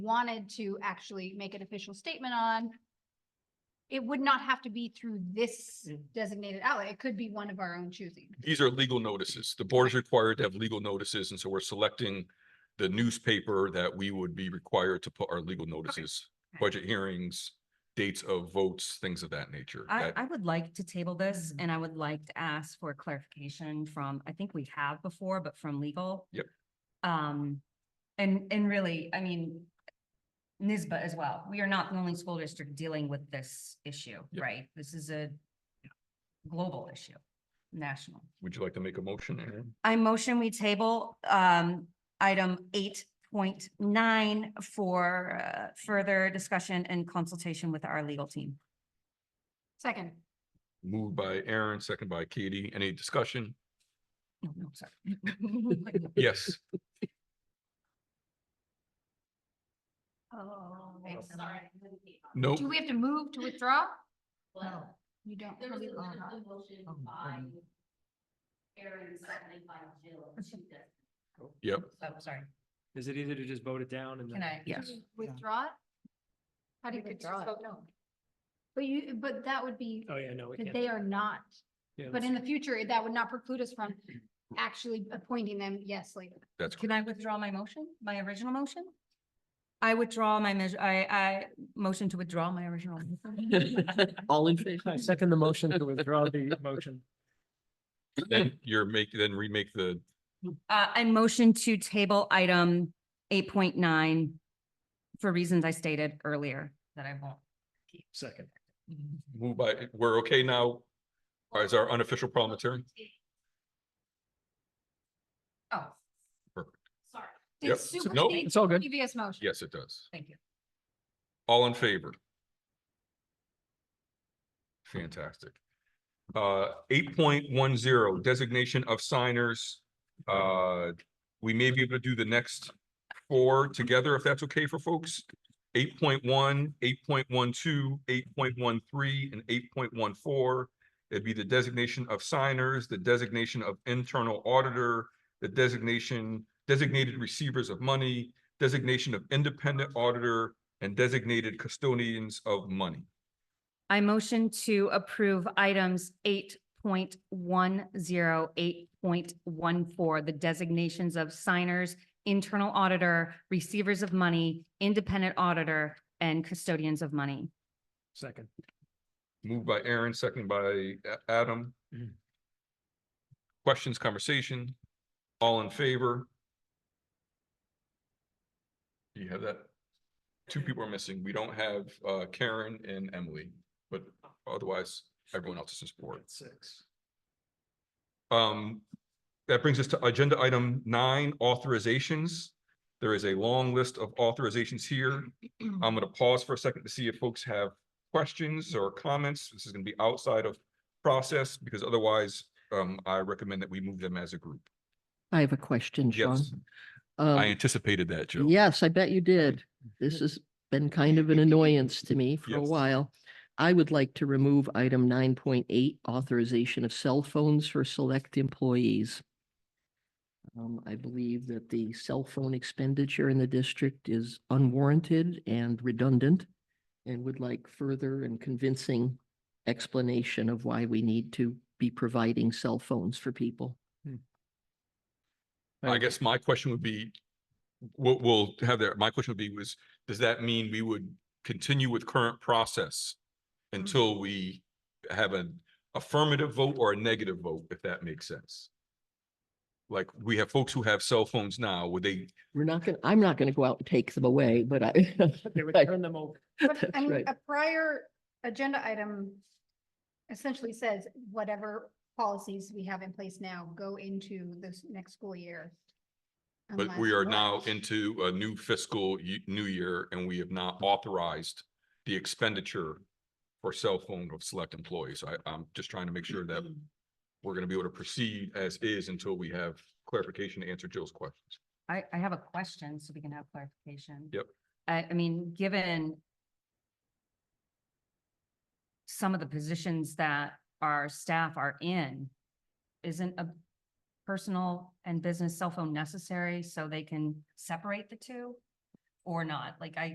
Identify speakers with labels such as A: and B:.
A: wanted to actually make an official statement on, it would not have to be through this
B: Mm.
A: designated outlet. It could be one of our own choosing.
C: these are legal notices. The board is required to have legal notices, and so we're selecting the newspaper that we would be required to put our legal notices,
A: Okay.
C: budget hearings, dates of votes, things of that nature.
D: I,
C: That-
D: I would like to table
C: Mm-hmm.
D: this and I would like to ask for clarification from, I think we have before, but from legal.
C: Yep.
D: Um, and, and really, I mean, NISBA as well. We are not the only school district dealing with this issue,
C: Yep.
D: right? This is a global issue, national.
C: Would you like to make a motion, Erin?
D: I motion we table, um, item eight point nine for, uh, further discussion and consultation with our legal team.
A: Second,
C: Moved by Aaron, second by Katie. Any discussion?
D: No, no, sorry.
C: Yes.
A: oh,
E: I'm sorry.
C: No.
A: do we have to move to withdraw?
E: Well,
A: You don't.
E: there was a
A: really want
E: a
A: to.
E: motion
D: Oh,
E: by
D: um.
E: Aaron, seconded by Jill. to that.
C: Yep.
D: Oh, sorry.
B: Is it easier to just vote it down and
D: Can
B: then?
D: I?
A: Do we Withdraw it? How do you
E: We
A: withdraw
E: withdraw
A: it? No. But you, but that would be,
B: Oh, yeah, no, we
A: that
B: can't.
A: they are not,
B: Yeah,
A: but
B: let's-
A: in the future, that would not preclude us from actually appointing them, yes, later.
C: That's,
D: Can I withdraw my motion, my original motion? I withdraw my measure, I, I motion to withdraw my original.
F: All in favor?
B: I second the motion to withdraw the motion.
C: then you're making, then remake the,
D: Uh, I motion to table item eight point nine for reasons I stated earlier that I won't.
B: Second.
C: move by, we're okay now as our unofficial parliamentarian?
D: Oh,
E: Sorry.
A: It
C: Yep.
A: supersedes
C: Nope.
B: It's all good.
A: Previous motion.
C: Yes, it does.
D: thank you.
C: All in favor? Fantastic. Uh, eight point one zero, designation of signers. Uh, we may be able to do the next four together, if that's okay for folks. 8.1, 8.12, 8.13, and eight point one four. It'd be the designation of signers, the designation of internal auditor, the designation, designated receivers of money, designation of independent auditor, and designated custodians of money.
D: I motion to approve items 8.10, 8.14, the designations of signers, internal auditor, receivers of money, independent auditor, and custodians of money.
B: Second.
C: Moved by Aaron, second by A- Adam.
B: Mhm.
C: Questions, conversation, all in favor? Do you have that? Two people are missing. We don't have uh, Karen and Emily, but otherwise everyone else is in support.
B: Six.
C: Um, that brings us to agenda item nine, authorizations. There is a long list of authorizations here. I'm gonna pause for a second to see if folks have questions or comments. This is gonna be outside of process because otherwise, um, I recommend that we move them as a group.
F: I have a question, Sean.
C: Yes,
F: Um,
C: I anticipated that, Joe.
F: Yes, I bet you did. This has been kind of an annoyance to me for a
C: Yes.
F: while. I would like to remove item nine point eight, authorization of cell phones for select employees. Um, I believe that the cell phone expenditure in the district is unwarranted and redundant and would like further and convincing explanation of why we need to be providing cell phones for people.
C: I guess my question would be, we'll, we'll have there, my question would be was, does that mean we would continue with current process? Until we have an affirmative vote or a negative vote, if that makes sense? Like, we have folks who have cell phones now, would they,
F: We're not gonna, I'm not gonna go out and take them away, but I.
B: They would
F: Right.
B: turn them over.
A: But I
F: That's
A: mean,
F: right.
A: a prior agenda item essentially says whatever policies we have in place now go into this next school year.
C: but we are now into a new fiscal ye- new year and we have not authorized the expenditure for cell phone of select employees. I, I'm just trying to make sure that we're gonna be able to proceed as is until we have clarification to answer Jill's questions.
D: I, I have a question, so we can have clarification.
C: Yep.
D: I, I mean, given some of the positions that our staff are in, isn't a personal and business cell phone necessary so they can separate the two? or not. Like I,